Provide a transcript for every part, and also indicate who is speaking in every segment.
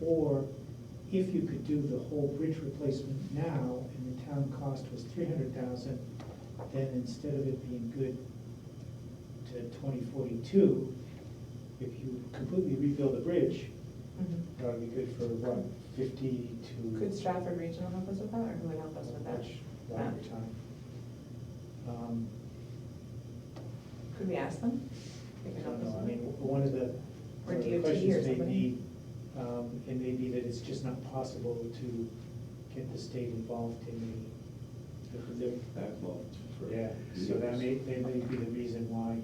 Speaker 1: Or if you could do the whole bridge replacement now and the town cost was three hundred thousand, then instead of it being good to twenty forty-two, if you completely rebuild the bridge, that would be good for what, fifty to.
Speaker 2: Could Stratford Regional help us with that, or who would help us with that?
Speaker 1: Much longer
Speaker 2: Yeah.
Speaker 1: time. Um,
Speaker 2: Could we ask them? They
Speaker 1: I
Speaker 2: could
Speaker 1: don't
Speaker 2: help us
Speaker 1: know, I
Speaker 2: with
Speaker 1: mean,
Speaker 2: it.
Speaker 1: one of the
Speaker 2: Or
Speaker 1: one of the
Speaker 2: DOT or
Speaker 1: questions may
Speaker 2: somebody.
Speaker 1: be, um, it may be that it's just not possible to get the state involved in the, the- the-
Speaker 3: I've loved for
Speaker 1: yeah, so that may,
Speaker 3: years.
Speaker 1: that may be the reason why.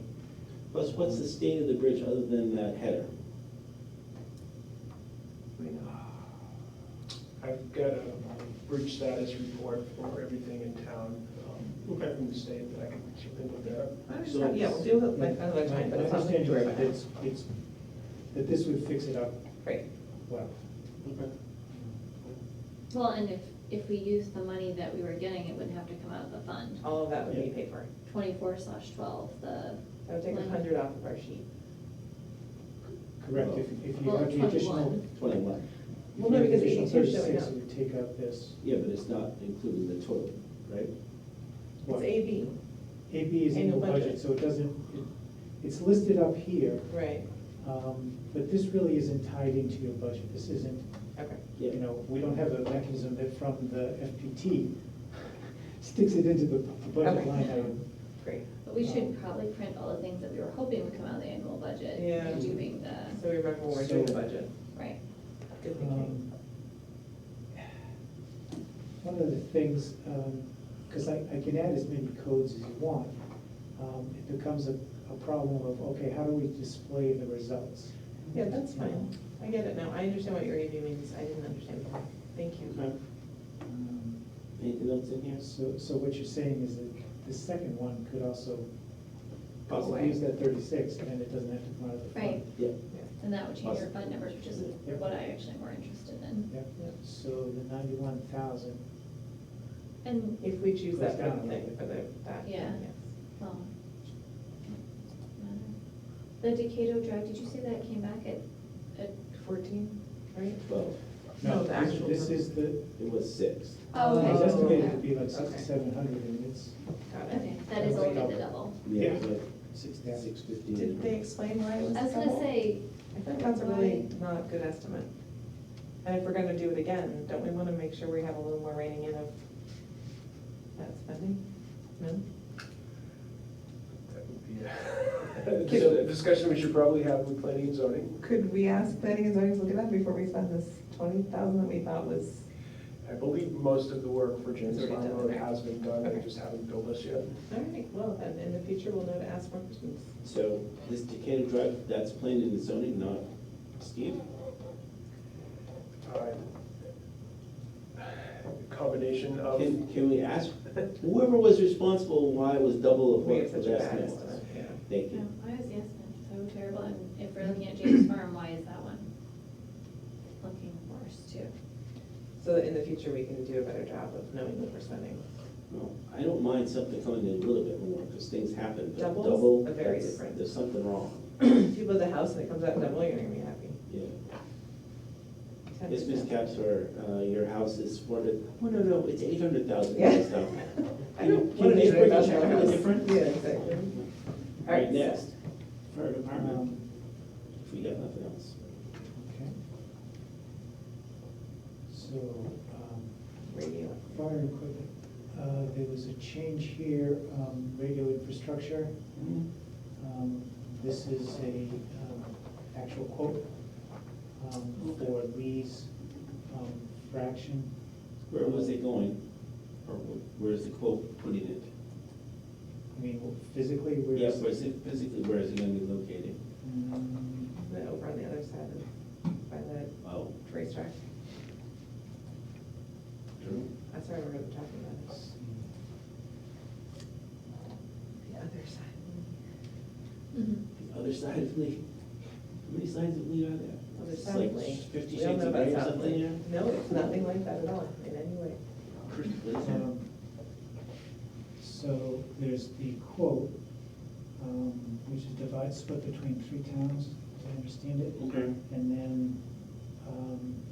Speaker 3: What's, what's the state of the bridge other than that header?
Speaker 2: We know.
Speaker 4: uh, I've got a bridge status report for everything in town, um, from the state that I can chip in with that.
Speaker 2: I
Speaker 3: So-
Speaker 2: understand, yeah, we'll deal with it another time, but it's
Speaker 1: My
Speaker 2: not something
Speaker 1: understanding
Speaker 2: to worry
Speaker 1: is
Speaker 2: about
Speaker 1: that it's, it's, that this would fix it up
Speaker 2: Great.
Speaker 1: well.
Speaker 3: Okay.
Speaker 5: Well, and if, if we used the money that we were getting, it would have to come out of the fund.
Speaker 2: All of that would be
Speaker 1: Yeah.
Speaker 2: paid for.
Speaker 5: Twenty-four slash twelve, the.
Speaker 2: That would take
Speaker 5: Mm-hmm.
Speaker 2: a hundred off of our sheet.
Speaker 1: Correct, if, if you
Speaker 5: Well,
Speaker 1: have the additional.
Speaker 5: 21.
Speaker 3: Twenty-one.
Speaker 1: if
Speaker 2: Well,
Speaker 1: you
Speaker 2: no,
Speaker 1: have the
Speaker 2: because
Speaker 1: additional
Speaker 2: 82 is showing
Speaker 1: 36,
Speaker 2: up.
Speaker 1: it would take out this.
Speaker 3: Yeah, but it's not including the toilet, right?
Speaker 2: It's
Speaker 1: what?
Speaker 2: AB,
Speaker 1: AB is in the
Speaker 2: Annual budget.
Speaker 1: budget, so it doesn't, it- it's listed up here,
Speaker 2: right,
Speaker 1: um, but this really isn't tied into your budget. This isn't,
Speaker 2: okay.
Speaker 3: Yeah.
Speaker 1: you know, we don't have a mechanism that from the FPT sticks it into the the budget
Speaker 2: Okay.
Speaker 1: line item.
Speaker 2: Great,
Speaker 5: But we should probably print all the things that we were hoping would come out of the annual budget.
Speaker 2: Yeah.
Speaker 5: And doing the,
Speaker 2: so we remember when we're doing the
Speaker 1: So-
Speaker 2: budget.
Speaker 5: right.
Speaker 2: Good thinking.
Speaker 1: Um, One of the things, because I, I can add as many codes as you want, um, it becomes a, a problem of, okay, how do we display the results?
Speaker 2: Yeah, that's fine, I get it now, I understand what your AB means, I didn't understand before, thank you.
Speaker 3: Okay.
Speaker 1: Um,
Speaker 3: Anything else in here?
Speaker 1: So, so what you're saying is that the second one could also,
Speaker 2: Go
Speaker 1: because
Speaker 2: away.
Speaker 1: use that thirty-six, and then it doesn't have to come out of the fund.
Speaker 5: Right.
Speaker 3: Yeah.
Speaker 2: Yeah.
Speaker 5: And that would change your
Speaker 3: Awesome.
Speaker 5: fund numbers, which is what I actually am more interested in.
Speaker 1: Yep, yep. so the ninety-one thousand,
Speaker 5: And,
Speaker 2: If we choose
Speaker 1: Goes
Speaker 2: that for
Speaker 1: down
Speaker 2: the
Speaker 1: a
Speaker 2: thing,
Speaker 1: little
Speaker 2: for the, that,
Speaker 5: Yeah.
Speaker 2: yes.
Speaker 5: well. um, The Decato Drive, did you say that came back at, at,
Speaker 2: Fourteen, right?
Speaker 3: Twelve.
Speaker 2: No,
Speaker 1: no,
Speaker 2: the
Speaker 1: this,
Speaker 2: actual
Speaker 1: this
Speaker 2: number.
Speaker 1: is the,
Speaker 3: It was six.
Speaker 5: oh,
Speaker 2: Uh,
Speaker 1: it was
Speaker 5: okay.
Speaker 1: estimated to be like
Speaker 2: Okay.
Speaker 1: sixty-seven hundred, and it's,
Speaker 2: Got it.
Speaker 5: Okay, that is a little bit the double.
Speaker 3: Yeah.
Speaker 1: Yeah.
Speaker 3: Six,
Speaker 1: Yeah.
Speaker 3: six fifteen.
Speaker 2: Did they explain why it was
Speaker 5: I was gonna
Speaker 2: double?
Speaker 5: say,
Speaker 2: I think that's a really not a good estimate. And if we're gonna do it again, don't we wanna make sure we have a little more reining in of that spending? No?
Speaker 4: That would be a- It's a discussion we should probably have with planning and zoning.
Speaker 2: Could we ask planning and zoning to look at that before we spend this twenty thousand that we thought was?
Speaker 4: I believe most of the work for James
Speaker 2: It's already
Speaker 4: Farm
Speaker 2: done,
Speaker 4: Road
Speaker 2: right?
Speaker 4: has been done, they
Speaker 2: Okay.
Speaker 4: just haven't billed us yet.
Speaker 2: All right, well, then in the future, we'll know to ask more questions.
Speaker 3: So this Decatur Drive, that's planned in the zoning, not Steve?
Speaker 4: Uh, Combination
Speaker 1: Oh.
Speaker 4: of,
Speaker 3: Can, can we ask, whoever was responsible, why it was double of
Speaker 2: We
Speaker 3: what
Speaker 2: have
Speaker 3: the
Speaker 2: such a
Speaker 3: last
Speaker 2: bad
Speaker 3: one was?
Speaker 2: estimate, yeah.
Speaker 3: Thank
Speaker 5: no,
Speaker 3: you.
Speaker 5: why is the estimate so terrible? And if we're looking at James Farm, why is that one looking worse too?
Speaker 2: So that in the future, we can do a better job of knowing what we're spending.
Speaker 3: Well, I don't mind something coming in a little bit more, because things happen, but
Speaker 2: Doubles?
Speaker 3: double,
Speaker 2: Are very
Speaker 3: that's-
Speaker 2: different.
Speaker 3: there's something wrong.
Speaker 2: If you build a house and it comes out double, you're gonna be happy.
Speaker 3: Yeah.
Speaker 2: Ten
Speaker 3: Yes, Ms.
Speaker 2: percent.
Speaker 3: Capser, uh, your house is four hundred, oh, no, no, it's eight hundred thousand
Speaker 2: Yeah.
Speaker 3: dollars now.
Speaker 2: I don't want
Speaker 3: Can you
Speaker 2: to
Speaker 3: just
Speaker 2: hear
Speaker 3: bring
Speaker 2: about
Speaker 3: us
Speaker 2: your
Speaker 3: something
Speaker 2: house.
Speaker 3: different?
Speaker 2: Yeah, exactly.
Speaker 3: All right, next,
Speaker 1: fire department,
Speaker 3: if we got nothing else.
Speaker 1: um, okay. So, um,
Speaker 2: Radio.
Speaker 1: fire equipment, uh, there was a change here, um, radio infrastructure.
Speaker 3: Mm-hmm.
Speaker 1: Um, This is a um, actual quote um, for Lee's um, fraction.
Speaker 3: Where was it going? Or wh- where's the quote putting it?
Speaker 1: I mean, physically, we're.
Speaker 3: Yes, where's it, physically, where is it gonna be located?
Speaker 1: Mm,
Speaker 2: But over on the other side of, by the
Speaker 3: Oh,
Speaker 2: racetrack,
Speaker 3: true.
Speaker 2: that's where we're talking
Speaker 3: Oh.
Speaker 2: about,
Speaker 1: let's
Speaker 2: it.
Speaker 1: see.
Speaker 2: the other side.
Speaker 3: The other side of Lee, how many sides of Lee are there?
Speaker 2: Other
Speaker 3: It's
Speaker 2: side
Speaker 3: like
Speaker 2: of Lee.
Speaker 3: Fifty
Speaker 2: We don't
Speaker 3: shades
Speaker 2: know
Speaker 3: of
Speaker 2: about
Speaker 3: gray or
Speaker 2: South
Speaker 3: something,
Speaker 2: Lake.
Speaker 3: yeah?
Speaker 2: No, it's nothing like that at all, in any way.
Speaker 3: What is that?
Speaker 1: Um, So there's the quote, um, which is divided, split between three towns, as I understand it.
Speaker 3: Okay.
Speaker 1: And then um,